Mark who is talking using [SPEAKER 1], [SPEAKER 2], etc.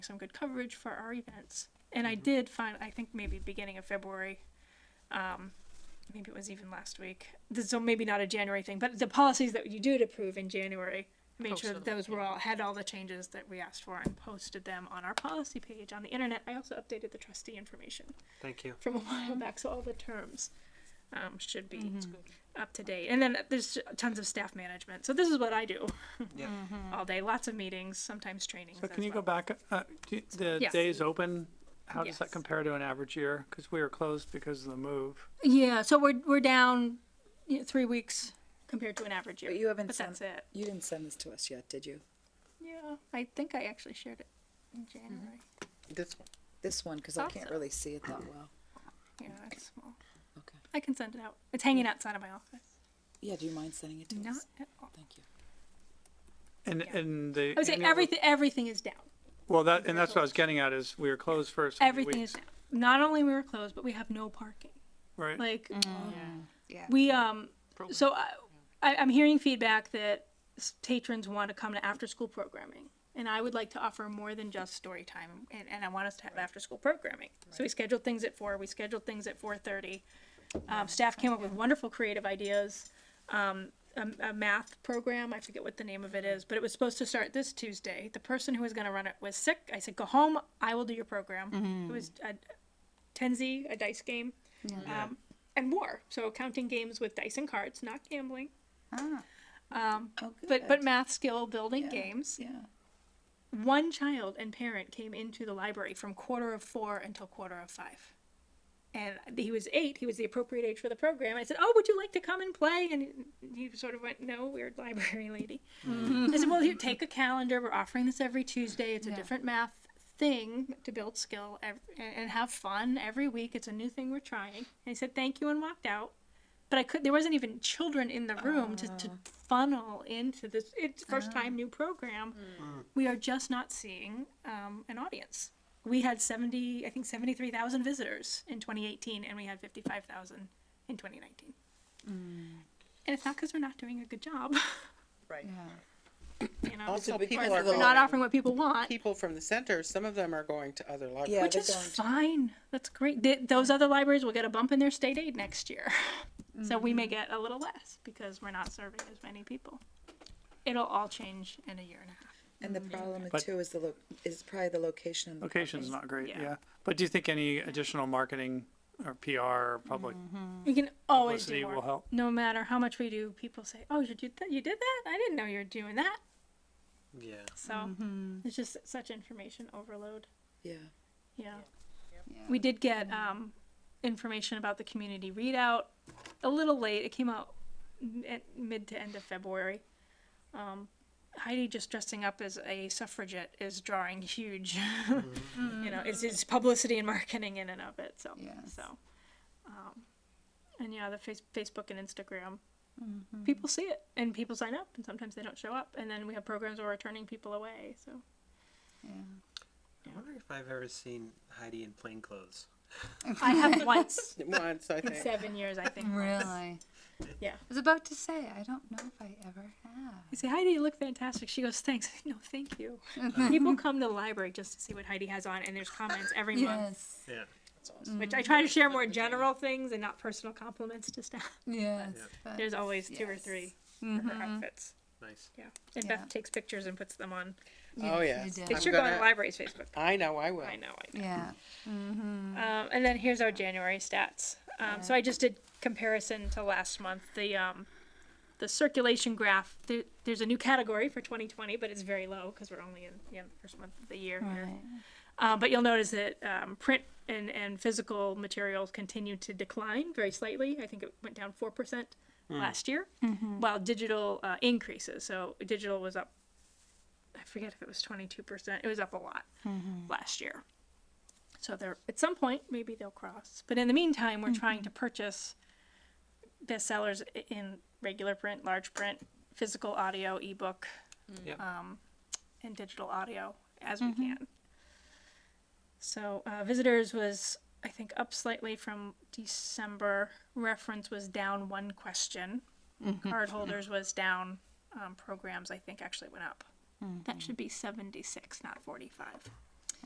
[SPEAKER 1] some good coverage for our events. And
[SPEAKER 2] Mm-hmm.
[SPEAKER 1] I did find, I think maybe beginning of February, um, maybe it was even last week. This, so maybe not a January thing, but the policies that you did approve in January, I made sure that
[SPEAKER 2] Posted them,
[SPEAKER 1] those were all had all the changes that we asked for and posted them on our policy page on the internet. I also updated the trustee information
[SPEAKER 3] Thank you.
[SPEAKER 1] from a while back, so all the terms um, should be
[SPEAKER 2] Mm-hmm.
[SPEAKER 1] up to date. And then there's tons of staff management. So this is what I do
[SPEAKER 3] Yeah.
[SPEAKER 1] all day. Lots of meetings, sometimes trainings.
[SPEAKER 4] So
[SPEAKER 1] as
[SPEAKER 4] can you go
[SPEAKER 1] well.
[SPEAKER 4] back, uh, do- the
[SPEAKER 1] Yes.
[SPEAKER 4] days open, how does that
[SPEAKER 1] Yes.
[SPEAKER 4] compare to an average year? Because we were closed because of the move.
[SPEAKER 1] Yeah, so we're we're down you know, three weeks compared to an average year.
[SPEAKER 5] But you haven't
[SPEAKER 1] But
[SPEAKER 5] sent-
[SPEAKER 1] that's it.
[SPEAKER 5] You didn't send this to us yet, did you?
[SPEAKER 1] Yeah, I think I actually shared it in January.
[SPEAKER 5] This one. This one, because I
[SPEAKER 1] Thought
[SPEAKER 5] can't
[SPEAKER 1] so.
[SPEAKER 5] really see it that well.
[SPEAKER 1] Yeah, it's small.
[SPEAKER 5] Okay.
[SPEAKER 1] I can send it out. It's hanging outside of my office.
[SPEAKER 5] Yeah, do you mind sending it to
[SPEAKER 1] Not
[SPEAKER 5] us?
[SPEAKER 1] at all.
[SPEAKER 5] Thank you.
[SPEAKER 4] And,
[SPEAKER 1] Yeah.
[SPEAKER 4] and the.
[SPEAKER 1] I would say
[SPEAKER 4] annual-
[SPEAKER 1] everything everything is down.
[SPEAKER 4] Well, that, and that's what I was getting at is we were closed for so many
[SPEAKER 1] Everything is
[SPEAKER 4] weeks,
[SPEAKER 1] down. Not only we were closed, but we have no parking.
[SPEAKER 4] Right.
[SPEAKER 1] Like
[SPEAKER 2] Yeah.
[SPEAKER 1] we um
[SPEAKER 2] Program.
[SPEAKER 1] so I, I I'm hearing feedback that s- patrons want to come to after school programming. And I would like to offer more than just story time, and, and I want us to have after school programming. So we scheduled things at four. We scheduled things at four thirty. Um, staff came up with wonderful creative ideas. Um, a, a math program, I forget what the name of it is, but it was supposed to start this Tuesday. The person who was going to run it was sick. I said, "Go home. I will do your program." It was a Tenzi, a dice game um, and more. So counting games with dice and cards, not gambling,
[SPEAKER 5] Oh, good.
[SPEAKER 1] but but math skill building
[SPEAKER 5] Yeah.
[SPEAKER 1] games.
[SPEAKER 5] Yeah.
[SPEAKER 1] One child and parent came into the library from quarter of four until quarter of five. And he was eight. He was the appropriate age for the program. I said, "Oh, would you like to come and play?" And he sort of went, "No, weird library lady."
[SPEAKER 5] Hmm.
[SPEAKER 1] I said, "Well, here, take a calendar. We're offering this every Tuesday. It's a different math thing to build skill ev- and and have fun every week. It's a new thing we're trying." And he said, "Thank you," and walked out. But I could. There wasn't even children in the room to, to funnel into this. It's first time new program.
[SPEAKER 6] Mm.
[SPEAKER 1] We are just not seeing um, an audience. We had seventy, I think seventy three thousand visitors in 2018, and we had fifty five thousand in 2019. And it's not because we're not doing a good job.
[SPEAKER 6] Right.
[SPEAKER 1] You know,
[SPEAKER 6] Also,
[SPEAKER 1] It's-
[SPEAKER 6] people
[SPEAKER 1] it's-
[SPEAKER 6] are
[SPEAKER 1] we're not
[SPEAKER 6] going-
[SPEAKER 1] offering what people want.
[SPEAKER 6] People from the center, some of them are going to other libraries.
[SPEAKER 5] Yeah,
[SPEAKER 1] Which
[SPEAKER 5] they're
[SPEAKER 1] is
[SPEAKER 5] going to-
[SPEAKER 1] fine. That's great. Th- those other libraries will get a bump in their state aid next year. So we may get a little less because we're not serving as many people. It'll all change in a year and a half.
[SPEAKER 5] And the problem
[SPEAKER 4] But-
[SPEAKER 5] too is the lo- is probably the location. and the
[SPEAKER 4] Location's
[SPEAKER 5] parking.
[SPEAKER 4] not great,
[SPEAKER 1] Yeah.
[SPEAKER 4] yeah. But do you think any additional marketing or PR or public
[SPEAKER 1] We can Mm-hmm. always
[SPEAKER 4] publicity
[SPEAKER 1] do more.
[SPEAKER 4] will help?
[SPEAKER 1] No matter how much we do, people say, "Oh, you did that? You did that? I didn't know you were doing that."
[SPEAKER 3] Yeah.
[SPEAKER 1] So it's just such information overload.
[SPEAKER 5] Yeah.
[SPEAKER 1] Yeah. We did get um, information about the community readout a little late. It came out m- at mid to end of February. Um, Heidi just dressing up as a suffragette is drawing huge, you know, it's, it's publicity and marketing in and of it. So,
[SPEAKER 2] Yes.
[SPEAKER 1] so, um, and yeah, the face, Facebook and Instagram,
[SPEAKER 2] Mm-hmm.
[SPEAKER 1] people see it and people sign up, and sometimes they don't show up, and then we have programs where we're turning people away. So,
[SPEAKER 3] I wonder if I've ever seen Heidi in plain clothes.
[SPEAKER 1] I have once
[SPEAKER 6] Once, I
[SPEAKER 1] in
[SPEAKER 6] think.
[SPEAKER 1] seven years, I think.
[SPEAKER 2] Really?
[SPEAKER 1] Yeah.
[SPEAKER 2] I was about to say, I don't know if I ever have.
[SPEAKER 1] I say, Heidi, you look fantastic. She goes, thanks. I say, no, thank you. People come to the library just to see what Heidi has on, and there's comments every month,
[SPEAKER 2] Yes. Mm-hmm.
[SPEAKER 3] Yeah.
[SPEAKER 1] which I try to share more general things and not personal compliments to staff.
[SPEAKER 2] Yes. but-
[SPEAKER 1] There's always two or
[SPEAKER 2] yes. Mm-hmm.
[SPEAKER 1] three for her outfits.
[SPEAKER 3] Nice.
[SPEAKER 1] Yeah. And
[SPEAKER 2] Yeah.
[SPEAKER 1] Beth takes pictures and puts them on.
[SPEAKER 6] Oh, yeah.
[SPEAKER 2] Yes, you
[SPEAKER 1] They
[SPEAKER 2] did.
[SPEAKER 1] should go on the
[SPEAKER 6] gonna-
[SPEAKER 1] library's Facebook.
[SPEAKER 6] I know, I will.
[SPEAKER 1] I know, I know.
[SPEAKER 2] Yeah. Mm.
[SPEAKER 1] Um, and then here's our January stats. Um, so I just did comparison to last month. The um, the circulation graph. There, there's a new category for 2020, but it's very low because we're only in yeah, the first month of the year. here.
[SPEAKER 2] Right.
[SPEAKER 1] Um, but you'll notice that um, print and, and physical materials continue to decline very slightly. I think it went down 4% last year, while digital uh, increases. So digital was up, I forget if it was 22%, it was up a lot last year. So they're, at some point, maybe they'll cross. But in the meantime, we're trying to purchase bestsellers i- in regular print, large print, physical audio, ebook,
[SPEAKER 3] Yep.
[SPEAKER 1] um, and digital audio as we can. So uh, visitors was I think up slightly from December. Reference was down one question. Card holders was down. Um, programs I think actually went up. That should be seventy six, not forty five.